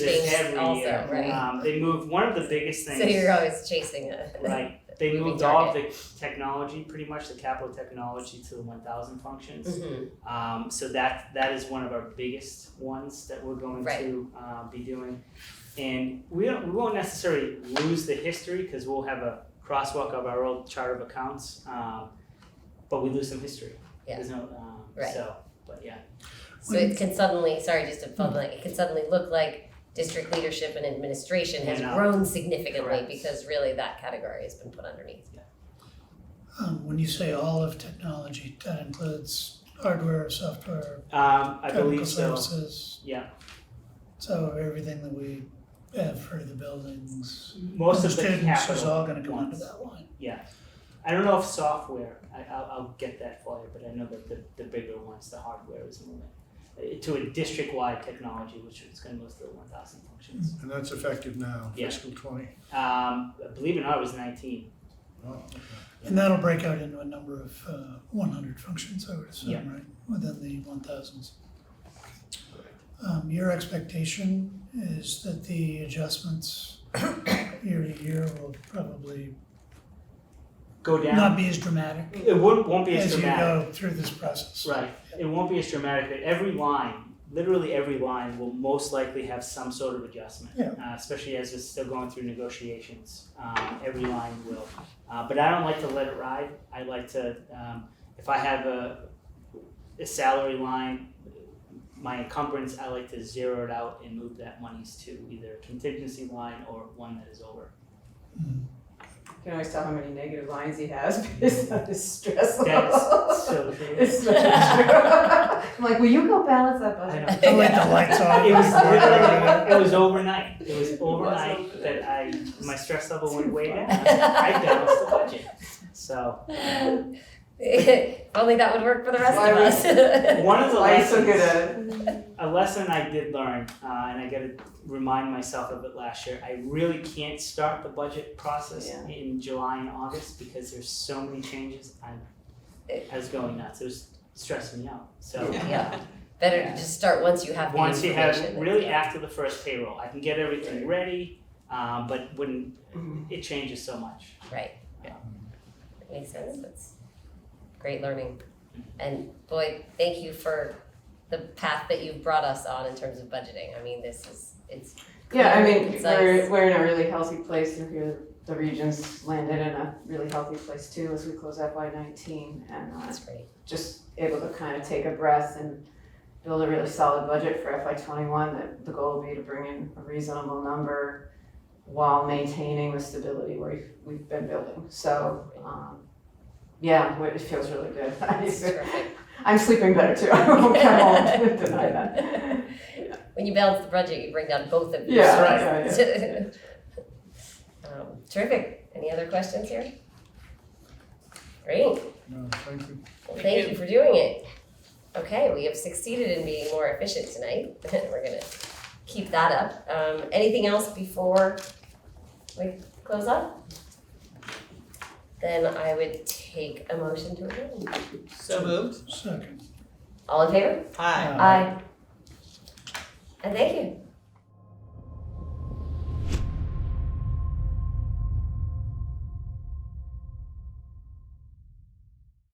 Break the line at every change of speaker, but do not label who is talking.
things
every
also,
year.
right?
Um, they moved one of the biggest things.
So you're always chasing it.
like they
Moving
moved all of the technology, pretty much the capital technology, to the 1,000 functions.
Mhm.
Um, so that that is one of our biggest ones that we're going
Right.
to uh, be doing, and we don't, we won't necessarily lose the history because we'll have a crosswalk of our old chart of accounts, um, but we lose some history.
Yeah.
There's no, um,
Right.
So, but yeah,
So it can suddenly, sorry, just to follow, like, it can suddenly look like district leadership and administration has
And, uh,
grown significantly
correct.
because really that category has been put underneath.
Um, when you say all of technology, that includes hardware, software,
um, I
technical
believe so.
services.
Yeah.
So everything that we have for the buildings.
Most of the
Understanding this is
capital.
all gonna go under
ones.
that line.
I don't know if software. I, I'll, I'll get that for you, but I know that the, the bigger ones, the hardware is moving uh, to a district-wide technology, which is going to list the 1,000 functions.
And that's effective now,
Yeah.
fiscal twenty.
Mm.
Um, believe it or not, it was 19.
Oh, okay.
And that'll break out into a number of, uh, one hundred functions, I would
Yeah.
assume, right, within the one thousands. Um, your expectation is that the adjustments year to year will probably
Go down.
not be as dramatic
it won't, won't be as
as you
dramatic.
go through this process.
Right. It won't be as dramatic. But every line, literally every line, will most likely have some sort of adjustment,
Yeah.
uh, especially as it's still going through negotiations. Um, every line will. Uh, but I don't like to let it ride. I like to, um, if I have a, a salary line, my encumbrance, I like to zero it out and move that monies to either a contingency line or one that is over.
You can always tell how many negative lines he has based on his stress
That's
level.
so true.
It's not true. I'm like, will you go balance that
I
budget?
know.
I like Oh, the lights on.
It was literally,
Yeah.
it was overnight, it was
It was
overnight
overnight.
that I, my stress level went way down, I balanced the budget. So,
If Only that would work for the rest
Why
of
we-
us.
one of the
Why are you so good
lessons,
at it?
a lesson I did learn, uh, and I gotta remind myself of it last year, I really can't start the budget process
Yeah.
in July and August because there's so many changes, I'm, I was going nuts, it was stressing me out, so.
Yeah. Better to just start once you have the
Once you have,
information.
really after the first payroll, I can get everything ready, um, but when,
Mhm.
it changes so much.
Makes sense, that's great learning. And boy, thank you for the path that you've brought us on in terms of budgeting. I mean, this is, it's,
Yeah, I mean,
It's
we're,
nice.
we're in a really healthy place, and here, the region's landed in a really healthy place too, as we close FY nineteen, and, uh,
it's great.
just able to kind of take a breath and build a really solid budget for FY twenty-one, that the goal will be to bring in a reasonable number while maintaining the stability we've, we've been building, so, um, yeah, it feels really good.
It's terrific.
I'm sleeping better too, I won't come home, deny that.
When you balance the budget, you bring down both of these.
Yeah,
sides. Um, Terrific. Any other questions here? Great.
No, thank you.
Well, thank you for doing it. Okay, we have succeeded in being more efficient tonight. We're gonna keep that up. Um, anything else before we close up? Then I would take a motion to adjourn.
So moved.
Second.
All in favor?
Hi.
Uh,
Aye. And thank you.